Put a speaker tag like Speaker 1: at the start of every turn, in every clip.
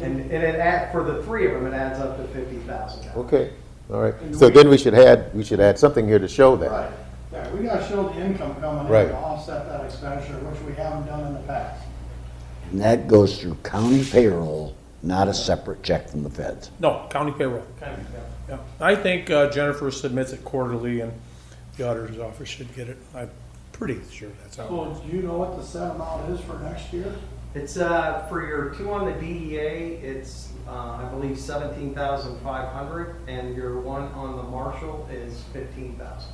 Speaker 1: And, and it add, for the three of them, it adds up to fifty thousand dollars.
Speaker 2: Okay, all right. So then we should add, we should add something here to show that.
Speaker 1: Right.
Speaker 3: Yeah, we gotta show the income coming in
Speaker 2: Right.
Speaker 3: to offset that expenditure, which we haven't done in the past.
Speaker 4: And that goes through county payroll, not a separate check from the feds.
Speaker 5: No, county payroll. Yeah. I think uh, Jennifer submits it quarterly and the auditor's office should get it. I'm pretty sure that's how.
Speaker 3: So do you know what the set amount is for next year?
Speaker 1: It's, uh, for your two on the DEA, it's, uh, I believe seventeen thousand five hundred, and your one on the marshal is fifteen thousand.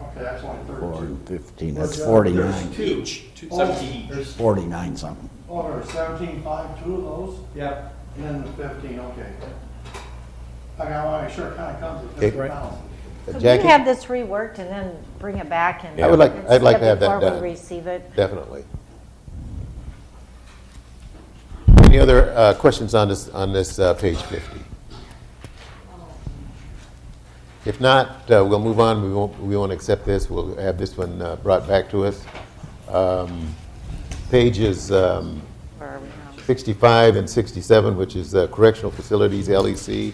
Speaker 3: Okay, that's only
Speaker 4: Four
Speaker 3: thirty-two.
Speaker 4: and fifteen, that's
Speaker 3: There's
Speaker 4: forty-nine,
Speaker 3: two.
Speaker 6: Each, two-
Speaker 3: Oh,
Speaker 6: 17 each.
Speaker 3: There's,
Speaker 4: forty-nine something.
Speaker 3: oh, there's seventeen-five, two of those,
Speaker 1: Yep,
Speaker 3: and then the fifteen, okay. I gotta wanna make sure it kinda comes to
Speaker 2: Okay.
Speaker 3: fifty thousand.
Speaker 2: Uh,
Speaker 7: Could we have
Speaker 2: Jackie,
Speaker 7: this reworked and then bring it back and?
Speaker 2: I would like- I'd like to have that done.
Speaker 7: Before we receive it?
Speaker 2: definitely. Any other uh, questions on this, on this uh, page 50? If not, uh, we'll move on. We won't, we won't accept this. We'll have this one uh, brought back to us. Um, Pages um,
Speaker 7: Or are we not?
Speaker 2: 65 and 67, which is uh, correctional facilities, E LEC.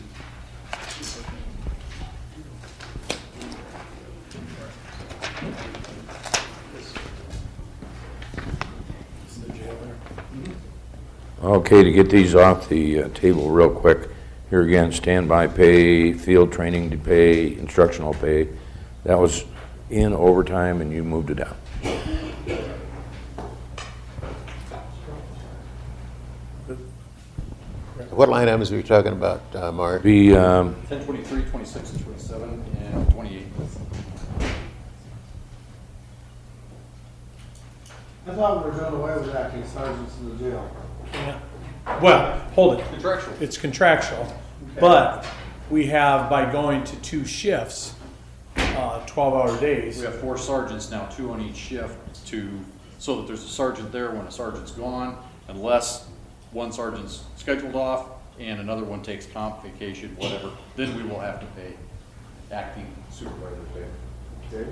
Speaker 8: Okay, to get these off the uh, table real quick, here again, standby pay, field training to pay, instructional pay, that was in overtime and you moved it out.
Speaker 2: What line items are you talking about, uh, Mark?
Speaker 8: Be, um,
Speaker 6: 10, 23, 26, and 27, and 28.
Speaker 3: I thought we were doing away with acting sergeants in the jail.
Speaker 5: Well, hold it.
Speaker 6: Contractual.
Speaker 5: It's contractual. But we have, by going to two shifts, uh, 12-hour days.
Speaker 6: We have four sergeants now, two on each shift to, so that there's a sergeant there when a sergeant's gone, unless one sergeant's scheduled off and another one takes comp, vacation, whatever, then we will have to pay acting supervisor pay.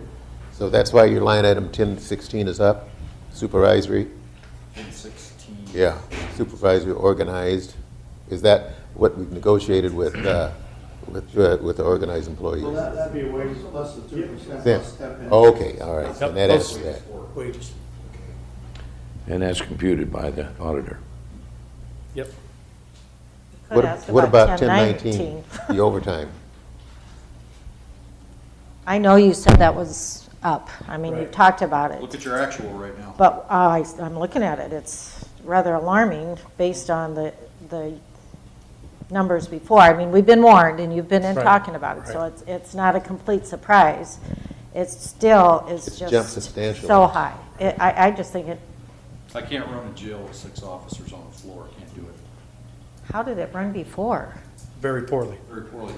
Speaker 2: So that's why your line item 1016 is up, supervisory,
Speaker 6: In sixteen.
Speaker 2: yeah, supervisory organized. Is that what we've negotiated with, uh, with, uh, with the organized
Speaker 3: Well,
Speaker 2: employees?
Speaker 3: that, that'd be a wage less than two percent
Speaker 2: Then, Oh,
Speaker 3: plus step in.
Speaker 2: okay, all right, and that answers that.
Speaker 5: Wages.
Speaker 8: and that's computed by the auditor.
Speaker 5: Yep.
Speaker 7: Could
Speaker 2: What
Speaker 7: ask
Speaker 2: what about
Speaker 7: 1019.
Speaker 2: 1019, the overtime?
Speaker 7: I know you said that was up. I mean, you
Speaker 5: Right.
Speaker 7: talked about it.
Speaker 6: Look at your actual right now.
Speaker 7: But uh, I, I'm looking at it, it's rather alarming based on the, the numbers before. I mean, we've been warned and you've been in
Speaker 5: Right,
Speaker 7: talking about it, so
Speaker 5: right.
Speaker 7: it's, it's not a complete surprise. It still is
Speaker 2: It's
Speaker 7: just.
Speaker 2: jumped substantially.
Speaker 7: So high. It- I, I just think it,
Speaker 6: I can't run a jail with six officers on the floor, I can't do it,
Speaker 7: how did it run before?
Speaker 5: Very poorly.
Speaker 6: very poorly.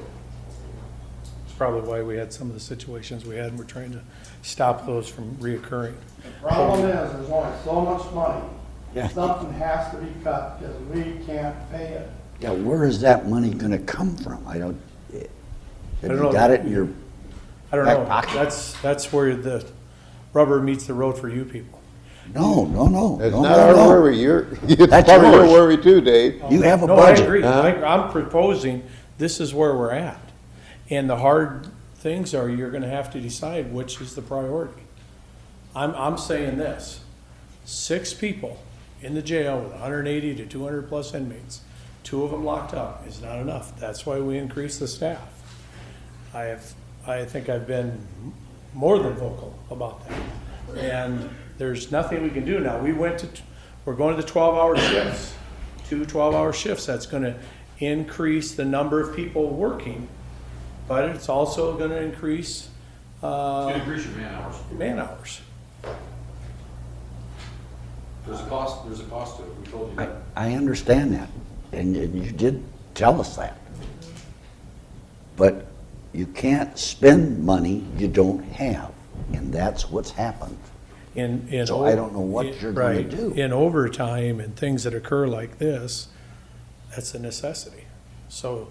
Speaker 5: It's probably why we had some of the situations we had and we're trying to stop those from reoccurring.
Speaker 3: The Problem is, there's only so much money. Something has to be cut, because we can't pay it.
Speaker 4: Yeah, where is that money gonna come from? I don't, have
Speaker 5: don't know.
Speaker 4: you got it in your,
Speaker 5: I don't
Speaker 4: Back
Speaker 5: know.
Speaker 4: pocket.
Speaker 5: That's, that's where the rubber meets the road for you people.
Speaker 4: no, no, no.
Speaker 2: That's
Speaker 4: no,
Speaker 2: not
Speaker 4: no,
Speaker 2: our
Speaker 4: no.
Speaker 2: worry, you're, it's
Speaker 4: That's
Speaker 2: probably your
Speaker 4: yours.
Speaker 2: worry too, Dave.
Speaker 4: You have a
Speaker 5: No, I
Speaker 4: budget.
Speaker 5: agree.
Speaker 2: huh?
Speaker 5: I- I'm proposing, this is where we're at. And the hard things are, you're gonna have to decide which is the priority. I'm, I'm saying this, six people in the jail with hundred and eighty to two hundred plus inmates, two of them locked up is not enough. That's why we increase the staff. I have, I think I've been more than vocal about that. And there's nothing we can do now. We went to, we're going to the twelve-hour shifts, two 12 twelve-hour shifts. That's gonna increase the number of people working, but it's also gonna increase, uh,
Speaker 6: Increase your man hours.
Speaker 5: man hours.
Speaker 6: There's a cost, there's a cost to it, we told you
Speaker 4: I,
Speaker 6: that.
Speaker 4: I understand that, and and you did tell us that. But you can't spend money you don't have, and that's what's happened.
Speaker 5: in, in.
Speaker 4: So I don't know what you're gonna
Speaker 5: Right.
Speaker 4: do.
Speaker 5: In overtime and things that occur like this, that's a necessity. So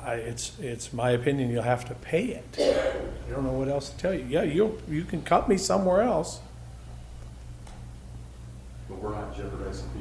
Speaker 5: I, it's, it's my opinion, you'll have to pay it. I don't know what else to tell you. Yeah, you, you can cut me somewhere else.
Speaker 6: but we're not jeopardizing people.